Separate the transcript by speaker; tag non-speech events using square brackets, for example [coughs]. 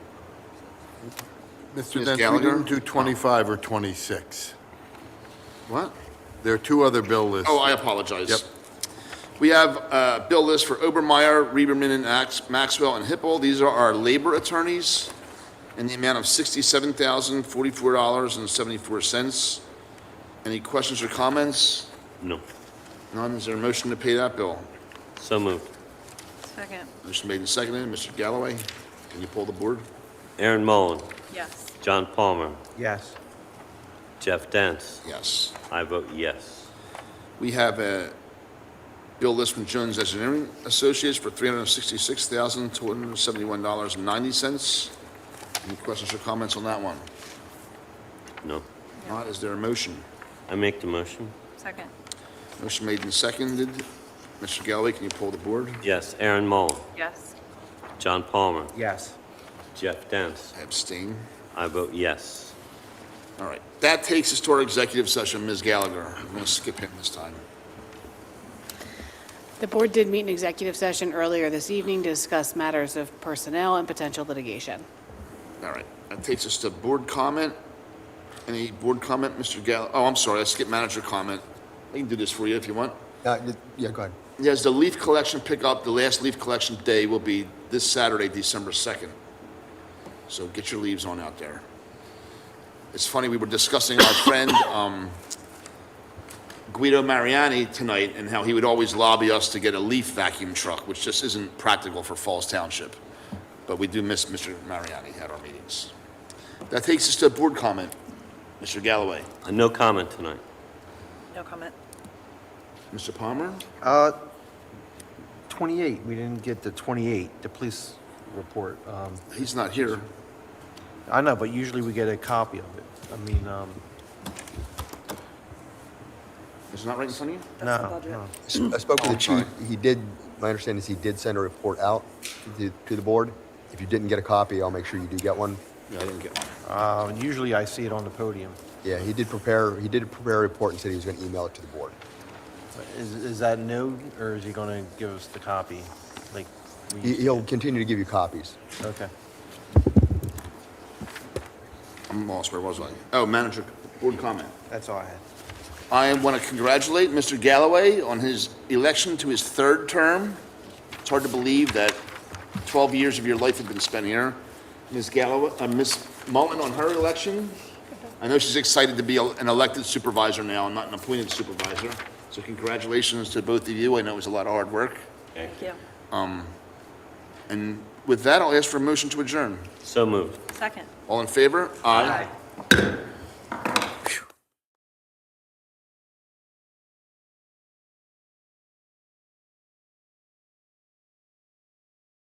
Speaker 1: Mr.
Speaker 2: Ms.
Speaker 1: Dent, we
Speaker 2: Gallagher?
Speaker 1: didn't do 25 or 26.
Speaker 2: What?
Speaker 1: There are two other bill lists.
Speaker 2: Oh, I apologize.
Speaker 1: Yep.
Speaker 2: We have uh, bill list for Obermeyer, Reberman, and Ax- Maxwell and Hippel. These are our labor attorneys in the amount of $67,044.74. Any questions or comments?
Speaker 3: No.
Speaker 2: None. Is there a motion to pay that bill?
Speaker 3: So moved.
Speaker 4: Second,
Speaker 2: Motion made and seconded. Mr. Galloway, can you pull the board?
Speaker 3: Aaron Mullen,
Speaker 4: yes.
Speaker 3: John Palmer,
Speaker 5: yes,
Speaker 3: Jeff Dance.
Speaker 2: Yes.
Speaker 3: I vote yes.
Speaker 2: We have a bill list from Jones Engineering Associates for $366,271.90. Any questions or comments on that one?
Speaker 3: No.
Speaker 2: Not, is there a motion?
Speaker 3: I make the motion.
Speaker 4: Second,
Speaker 2: Motion made and seconded. Mr. Galloway, can you pull the board?
Speaker 3: Yes, Aaron Mullen,
Speaker 4: yes.
Speaker 3: John Palmer,
Speaker 5: yes.
Speaker 3: Jeff Dance.
Speaker 2: I Abstain.
Speaker 3: I vote yes.
Speaker 2: All right, that takes us to our executive session, Ms. Gallagher. I'm going to skip him this time.
Speaker 6: The board did meet in executive session earlier this evening to discuss matters of personnel and potential litigation.
Speaker 2: All right, that takes us to board comment. Any board comment, Mr. Gall, oh, I'm sorry, I skipped manager comment. I can do this for you if you want.
Speaker 7: Uh, y- Yeah, go ahead.
Speaker 2: Yes, the leaf collection pickup, the last leaf collection day will be this Saturday, December 2nd. So get your leaves on out there. It's funny, we were discussing our [coughs] friend um, Guido Mariani tonight and how he would always lobby us to get a leaf vacuum truck, which just isn't practical for Falls Township. But we do miss Mr. Mariani at our meetings. That takes us to a board comment. Mr. Galloway,
Speaker 3: Uh, No comment tonight.
Speaker 4: No comment.
Speaker 2: Mr. Palmer?
Speaker 5: Uh, 28, we didn't get the 28, the police report. Um,
Speaker 2: He's not here.
Speaker 5: I know, but usually we get a copy of it. I mean, um,
Speaker 2: He's not right in front of you?
Speaker 5: no, no.
Speaker 7: I spoke
Speaker 5: Oh,
Speaker 7: with the
Speaker 2: sorry.
Speaker 7: chief. He did, my understanding is he did send a report out to the, to the board. If you didn't get a copy, I'll make sure you do get one.
Speaker 2: No, I didn't get one.
Speaker 5: Uh, Usually I see it on the podium.
Speaker 7: Yeah, he did prepare, he did prepare a report and said he was going to email it to the board.
Speaker 5: Is, is that new, or is he gonna give us the copy? Like, we
Speaker 7: He-
Speaker 5: used to
Speaker 7: He'll
Speaker 5: get?
Speaker 7: continue to give you copies.
Speaker 5: Okay.
Speaker 2: I'm lost, where was I? Oh, manager, board comment.
Speaker 5: That's all I had.
Speaker 2: I want to congratulate Mr. Galloway on his election to his third term. It's hard to believe that 12 years of your life have been spent here. Ms. Galloway, uh, Ms. Mullen on her election. I know she's excited to be el- an elected supervisor now and not an appointed supervisor. So congratulations to both of you. I know it was a lot of hard work.
Speaker 4: Thank you.
Speaker 2: And with that, I'll ask for a motion to adjourn.
Speaker 3: So moved.
Speaker 4: Second.
Speaker 2: All in favor? Aye.